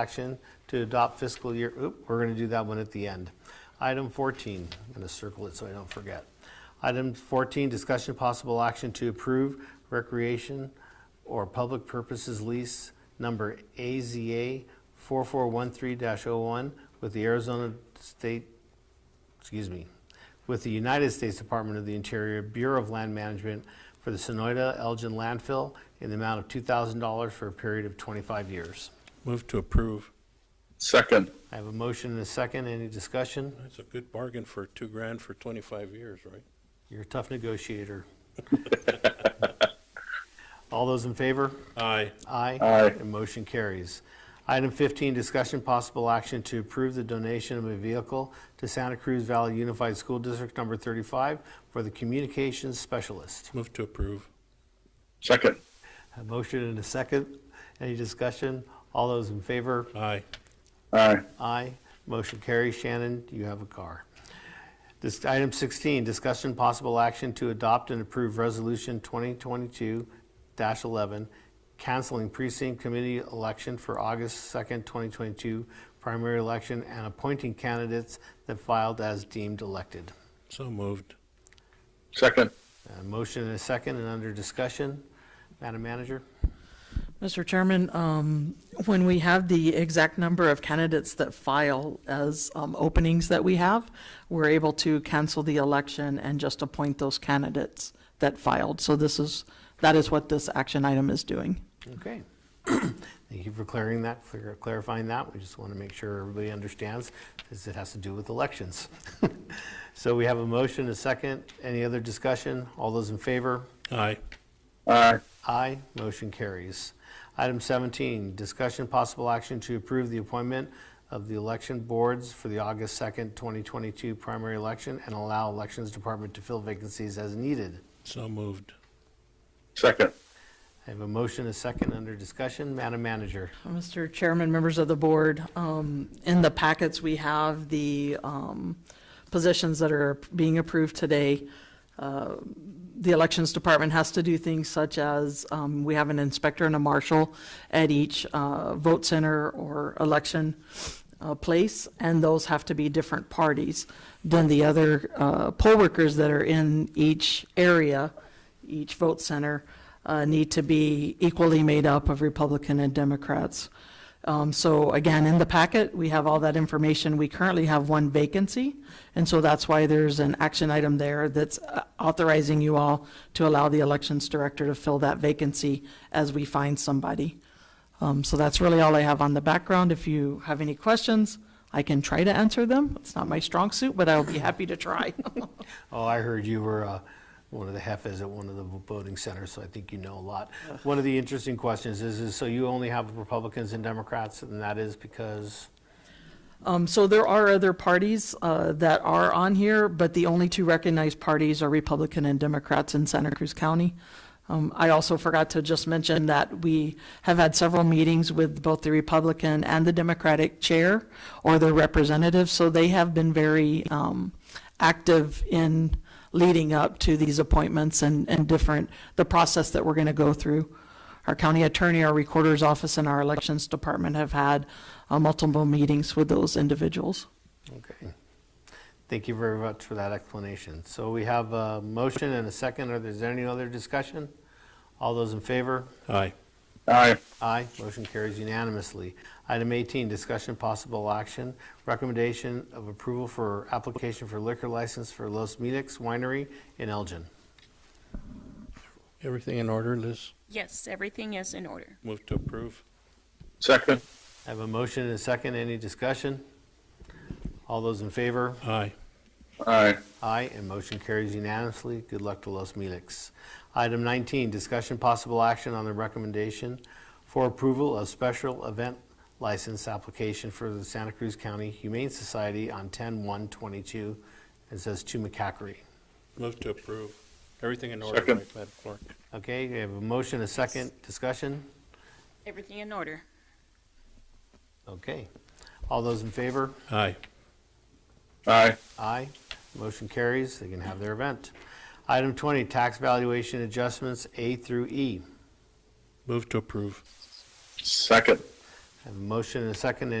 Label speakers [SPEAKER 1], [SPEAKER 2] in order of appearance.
[SPEAKER 1] Action to adopt fiscal year, oop, we're going to do that one at the end. Item 14, I'm going to circle it so I don't forget. Item 14, discussion of possible action to approve recreation or public purposes lease number AZA 4413-01 with the Arizona State excuse me, with the United States Department of the Interior Bureau of Land Management for the Sonoyta Elgin landfill in the amount of $2,000 for a period of 25 years.
[SPEAKER 2] Move to approve.
[SPEAKER 3] Second,
[SPEAKER 1] I have a motion and a second. Any discussion?
[SPEAKER 2] That's a good bargain for two grand for 25 years, right?
[SPEAKER 1] You're a tough negotiator. All those in favor?
[SPEAKER 2] Aye.
[SPEAKER 1] Aye.
[SPEAKER 3] Aye.
[SPEAKER 1] And motion carries. Item 15, discussion possible action to approve the donation of a vehicle to Santa Cruz Valley Unified School District Number 35 for the communications specialist.
[SPEAKER 2] Move to approve.
[SPEAKER 3] second,
[SPEAKER 1] A motion and a second. Any discussion? All those in favor?
[SPEAKER 2] Aye.
[SPEAKER 3] aye,
[SPEAKER 1] Aye. Motion carries. Shannon, you have a car. This, item 16, discussion possible action to adopt and approve Resolution 2022-11, canceling precinct committee election for August 2nd, 2022 primary election and appointing candidates that filed as deemed elected.
[SPEAKER 2] So moved.
[SPEAKER 3] second,
[SPEAKER 1] A motion and a second, and under discussion. Madam Manager?
[SPEAKER 4] Mr. Chairman, um, when we have the exact number of candidates that file as um, openings that we have, we're able to cancel the election and just appoint those candidates that filed. So this is, that is what this action item is doing.
[SPEAKER 1] Okay. Thank you for clearing that, for clarifying that. We just want to make sure everybody understands, because it has to do with elections. So we have a motion, a second. Any other discussion? All those in favor?
[SPEAKER 2] Aye.
[SPEAKER 3] aye,
[SPEAKER 1] Aye, motion carries. Item 17, discussion possible action to approve the appointment of the election boards for the August 2nd, 2022 primary election and allow Elections Department to fill vacancies as needed.
[SPEAKER 2] So moved.
[SPEAKER 3] second,
[SPEAKER 1] I have a motion, a second, under discussion. Madam Manager?
[SPEAKER 4] Mr. Chairman, members of the board, um, in the packets, we have the um, positions that are being approved today. Uh, The Elections Department has to do things such as, um, we have an inspector and a marshal at each uh, vote center or election uh, place, and those have to be different parties than the other uh, poll workers that are in each area each vote center uh, need to be equally made up of Republican and Democrats. Um, So again, in the packet, we have all that information. We currently have one vacancy, and so that's why there's an action item there that's uh, authorizing you all to allow the Elections Director to fill that vacancy as we find somebody. Um, So that's really all I have on the background. If you have any questions, I can try to answer them. It's not my strong suit, but I'll be happy to try.
[SPEAKER 1] Oh, I heard you were uh, one of the heifers at one of the voting centers, so I think you know a lot. One of the interesting questions is, is so you only have Republicans and Democrats, and that is because,
[SPEAKER 4] Um, so there are other parties, uh, that are on here, but the only two recognized parties are Republican and Democrats in Santa Cruz County. Um, I also forgot to just mention that we have had several meetings with both the Republican and the Democratic chair or their representatives, so they have been very, um, active in leading up to these appointments and, and different, the process that we're gonna go through. Our county attorney, our recorder's office, and our elections department have had uh, multiple meetings with those individuals.
[SPEAKER 1] okay. Thank you very much for that explanation. So we have a motion and a second. Are there any other discussion? All those in favor?
[SPEAKER 2] Aye.
[SPEAKER 3] aye,
[SPEAKER 1] Aye, motion carries unanimously. Item 18, discussion possible action, recommendation of approval for application for liquor license for Los Milix Winery in Elgin.
[SPEAKER 2] Everything in order, Liz?
[SPEAKER 5] Yes, everything is in order.
[SPEAKER 2] Move to approve.
[SPEAKER 3] second,
[SPEAKER 1] I have a motion and a second. Any discussion? All those in favor?
[SPEAKER 2] Aye.
[SPEAKER 3] aye,
[SPEAKER 1] Aye, and motion carries unanimously. Good luck to Los Milix. Item 19, discussion possible action on the recommendation for approval of special event license application for the Santa Cruz County Humane Society on 10/1/22. It says to McCackery.
[SPEAKER 2] Move to approve. Everything in order,
[SPEAKER 3] Second.
[SPEAKER 2] right, Madam Clerk?
[SPEAKER 1] Okay, we have a motion, a second. Discussion?
[SPEAKER 5] Everything in order.
[SPEAKER 1] Okay. All those in favor?
[SPEAKER 2] Aye.
[SPEAKER 3] aye,
[SPEAKER 1] Aye. Motion carries. They can have their event. Item 20, tax valuation adjustments A through E.
[SPEAKER 2] Move to approve.
[SPEAKER 3] second,
[SPEAKER 1] Have a motion and a second.